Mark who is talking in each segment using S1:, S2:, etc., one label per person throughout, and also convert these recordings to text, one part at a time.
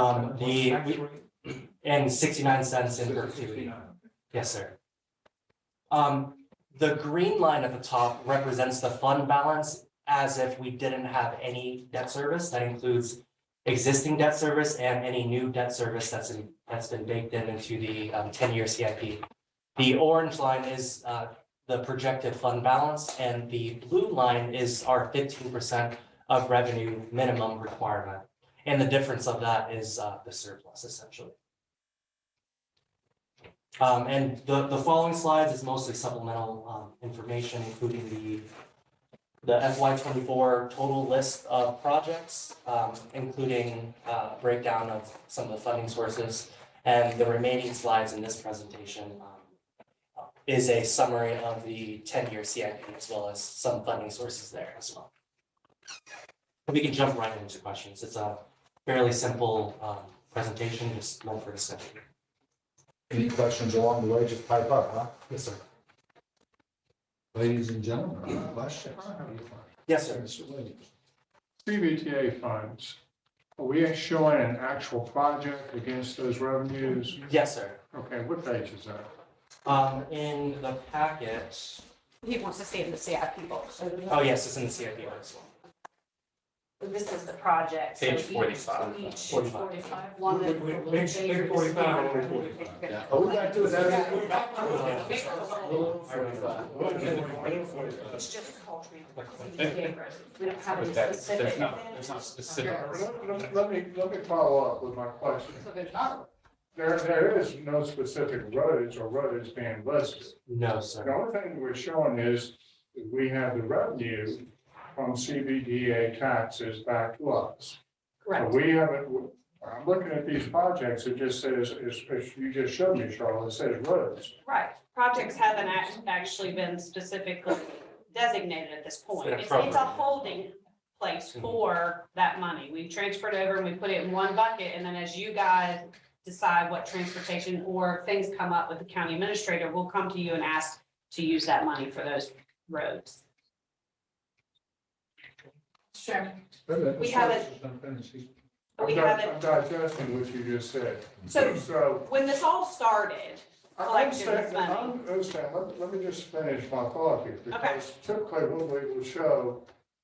S1: Um, the,
S2: Tax
S1: we-
S2: rate
S1: and sixty-nine cents in
S2: is
S1: perpetuity.
S2: 69.
S1: Yes, sir. Um, the green line at the top represents the fund balance as if we didn't have any debt service. That includes existing debt service and any new debt service that's in, that's been baked in into the um ten-year CIP. The orange line is uh the projected fund balance and the blue line is our fifteen percent of revenue minimum requirement. And the difference of that is uh the surplus essentially. Um, and the, the following slides is mostly supplemental, um, information, including the the FY twenty-four total list of projects, um, including, uh, breakdown of some of the funding sources. And the remaining slides in this presentation, um, is a summary of the ten-year CIP as well as some funding sources there as well. We can jump right into questions. It's a fairly simple, um, presentation, just meant for discussion.
S3: Any questions along the way, just pipe up, huh?
S1: Yes, sir.
S3: Ladies and gentlemen, any questions?
S1: Yes, sir.
S3: Mr. Williams.
S2: CBTA funds, are we showing an actual project against those revenues?
S1: Yes, sir.
S2: Okay, what page is that?
S1: Um, in the packet,
S4: He wants to stay in the CIP box. so we-
S1: oh, yes, it's in the CIP one as well.
S4: This is the project.
S5: Page 45.
S4: Each
S1: 45.
S4: forty-five, one.
S2: Wait, wait, page- page 45, one at 45.
S3: Oh, we gotta do it that way?
S4: It's just the whole tree. We don't have any
S5: But that- there's
S4: specific.
S5: not- There's not specific.
S2: Let- let- Let me, let me follow up with my question.
S4: So there's not.
S2: There, there is no specific roads or roads being listed.
S1: No,
S2: The
S1: sir.
S2: only thing we're showing is that we have the revenue from CBDA taxes back to us. But We haven't, I'm looking at these projects, it just says, it's- it's- you just showed me, Charlotte, it says roads.
S6: Right, projects haven't act- actually been specifically designated at this point. It's, it's a holding place for that money. We transferred over and we put it in one bucket, and then as you guys decide what transportation or things come up with the county administrator, we'll come to you and ask to use that money for those roads.
S4: Sure.
S3: Wait a minute,
S6: We
S3: Mr.
S6: haven't-
S3: Williams is not finished. He-
S6: But we
S2: I'm di-
S6: haven't-
S2: I'm digesting what you just said.
S6: So
S2: So
S6: when this all started,
S2: I
S6: Collection is
S2: understand, I
S6: money.
S2: understand, let, let me just finish my thought here, because typically what we will show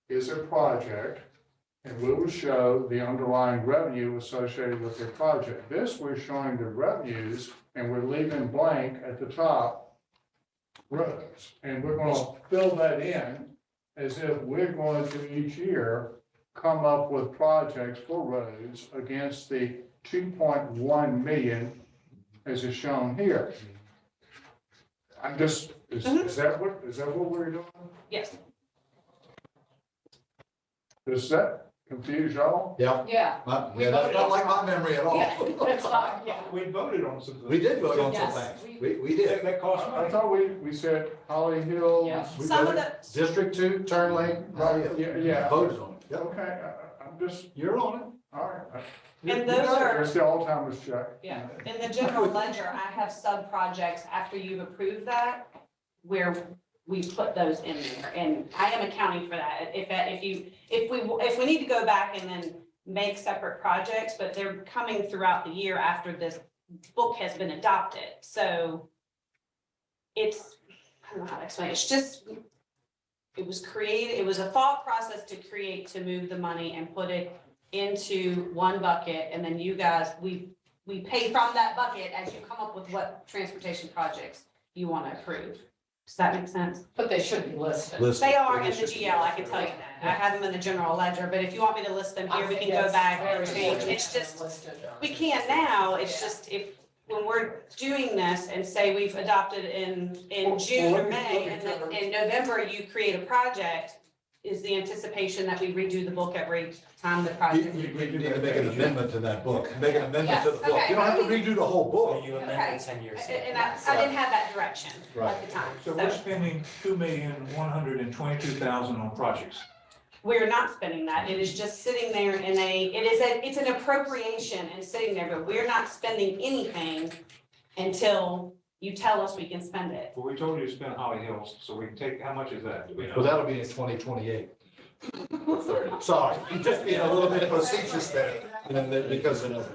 S2: is a project, and we will show the underlying revenue associated with the project. This, we're showing the revenues, and we're leaving blank at the top rows, and we're gonna fill that in as if we're going to each year come up with projects for roads against the two point one million as is shown here. I'm just, is,
S6: Mm-hmm.
S2: is that what, is that what we're doing?
S6: yes,
S2: Does that confuse y'all?
S3: Yeah,
S4: Yeah.
S3: not, yeah, that's not like my memory at
S4: Yeah, that's
S3: all.
S4: not, yeah.
S7: We voted on some.
S3: We did vote on some
S4: Yes,
S3: things, we, we did.
S7: That
S2: I
S7: cost
S2: I
S7: money.
S2: thought we, we said Holly
S4: Yeah.
S2: Hills.
S3: We
S6: Some of
S3: voted. District two, turn lane, right,
S2: Yeah, yeah.
S3: Voted on it, Yep.
S2: Okay, I, I- I'm just,
S3: You're on
S2: all right.
S6: And those are-
S2: It's the Alzheimer's check.
S6: yeah. In the general ledger, I have sub-projects after you've approved that, where we put those in there, and I am accounting for that. If, that- if you, if we, if we need to go back and then make separate projects, but they're coming throughout the year after this book has been adopted, so it's, I don't know how to explain, it. it's just, it was created, it was a thought process to create, to move the money and put it into one bucket, and then you guys, we, we pay from that bucket as you come up with what transportation projects you want to approve. Does that make sense?
S4: But they should be listed.
S3: it. Listen.
S6: They are in the GL, I can tell you that. I have them in the general ledger, but if you want me to list them here, we can go back and change. It's just, we can now, it's just if, when we're doing this and say we've adopted in, in June or May, and then in November you create a project, is the anticipation that we redo the book every time the
S3: You,
S6: project.
S3: you you need to make an amendment to that book, make an amendment to the
S6: Yes,
S3: book, you don't have to
S6: okay.
S3: redo the whole book.
S1: You
S6: Okay.
S1: amended ten years. ago.
S6: And I, I didn't have that direction at
S3: Right.
S6: the time.
S7: So we're spending two million, one hundred and twenty-two thousand on projects.
S6: We're not spending that. It is just sitting there in a, it is a, it's an appropriation and sitting there, but we're not spending anything until you tell us we can spend it.
S7: But we told you to spend Holly Hills, so we can take, how much is that? Do we know?
S3: Well, that'll be in twenty twenty-eight. Sorry, just being a little bit facetious there, and then, because of